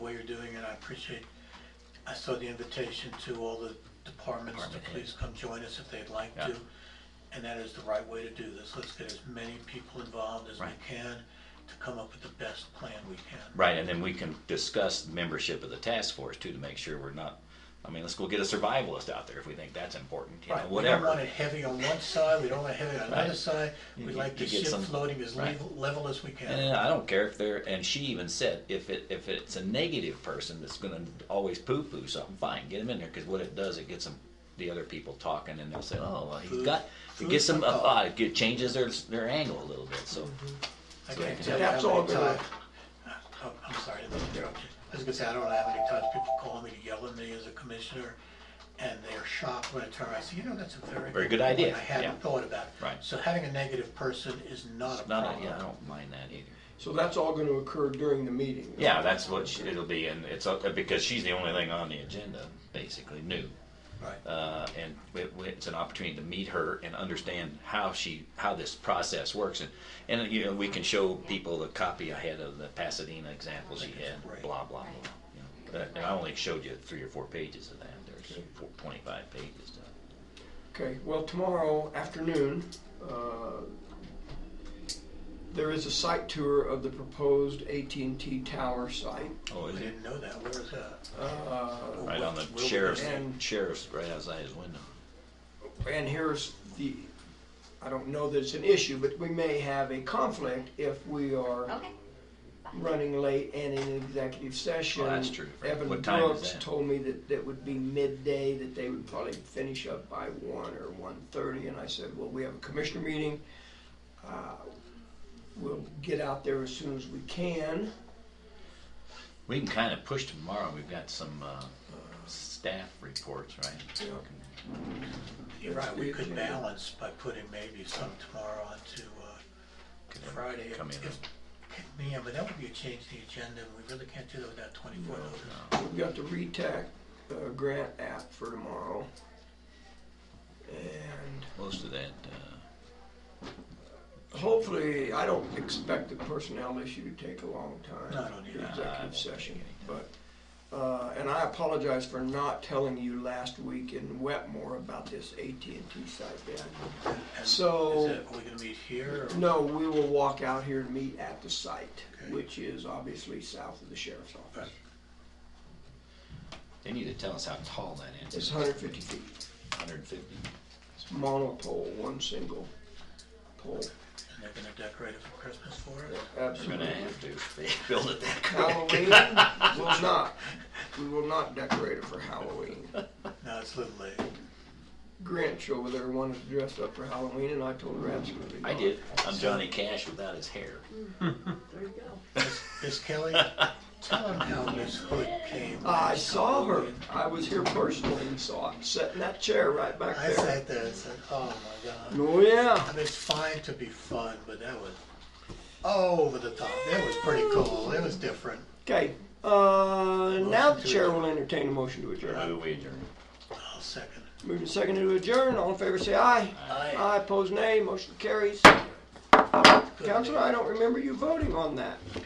way you're doing it, I appreciate, I saw the invitation to all the departments to Department head. please come join us if they'd like Yeah. to. And that is the right way to do this, let's get as many people involved as we Right. can to come up with the best plan we can. Right, and then we can discuss membership of the task force too to make sure we're not. I mean, let's go get a survivalist out there if we think that's important. You know, We don't want whatever. it heavy on one side, we don't want it heavy on another Right. side, we You- like the you get ship some- floating as right. level, level as we can. And I don't care if they're. And she even said, if it if it's a negative person that's going to always poo poo something, fine, get them in there because what it does, it gets them the other people talking, and they'll say, oh, well, he's Food- got. It food gets them. for Uh, thought. uh, it changes their their angle a little bit. So. Mm-hmm. I So they can't can- tell you That's how all many good. times, Oh, I'm sorry to interrupt you. I was gonna say, I don't know how many times people call me to yell at me as a commissioner, and they're shocked when I turn around, I say, you know, that's a very. Very good point. idea, I yeah. hadn't thought about it. Right. So having a negative person is not a Not a, yeah, I problem. don't mind that either. So that's all gonna occur during the meeting? Yeah, that's what she, it'll be, and it's uh, because she's the only thing on the agenda, basically new, Right. uh, and it, it's an opportunity to meet her and understand how she how this process works, and and you know we can show people the copy I had of the Pasadena example she had, Right. blah blah blah. You know, But- and I only showed you three or four pages of that. There's four, 25 pages. To, Okay, well, tomorrow afternoon, uh, there is a site tour of the proposed AT&T Tower site. oh, I is it didn't know that, where is that? Uh, right on the Where we sheriff's And- sheriff's right outside his window? And here's the, I don't know that it's an issue, but we may have a conflict if we are Okay. running late and in executive session. Oh, that's true. Evan What time is Brooks that? told me that that would be midday, that they would probably finish up by one or one-thirty, and I said, well, we have a commissioner meeting. Uh, We'll get out there as soon as we can. We can kind of push tomorrow. We've got some uh, staff reports, right? Yeah. You're right, we could Yeah. balance by putting maybe some tomorrow onto uh, Could Friday. if- Come in. if- Yeah, but that would be a change to the agenda, and we really can't do that without twenty-four No. notice. We've got the RETAC uh, grant app for tomorrow. And Most of that, uh, Hopefully, I don't expect the personnel issue to take a long time. No, I don't either. No, The I won't Executive take session, any but, uh, and I apologize for not telling you last week in Wetmore about this AT&T site ban. And So- Is it, are we gonna meet here? or- No, we will walk out here and meet at the site, Okay. which is obviously south of the sheriff's office. Right. they need to tell us how tall that is. It's 150 feet, 150. It's monopole, one single pole. And they're gonna decorate it for Christmas for us? We're gonna Absolutely. have to if they build it that quick. Halloween, will not, we will not decorate it for Halloween. No, it's a little late. Grinch over there wanted to dress up for Halloween, and I told her absolutely not. I did. I'm Johnny Cash without his hair. There you go. Miss Kelly, tell them how Miss Hood came. I saw her. I was here personally and saw it, sat in that chair right back I there. sat there and said, oh my God. Oh, yeah. I mean, it's fine to be fun, but that was over the top. That was pretty cool. It was different. Okay, uh, now Motion to the chair adjourn. will entertain a motion to adjourn. Who we adjourn. I'll second. Moving second to adjourn, all in favor say aye. Aye. Aye, opposed nay, motion carries. Counselor, I don't remember you voting on that.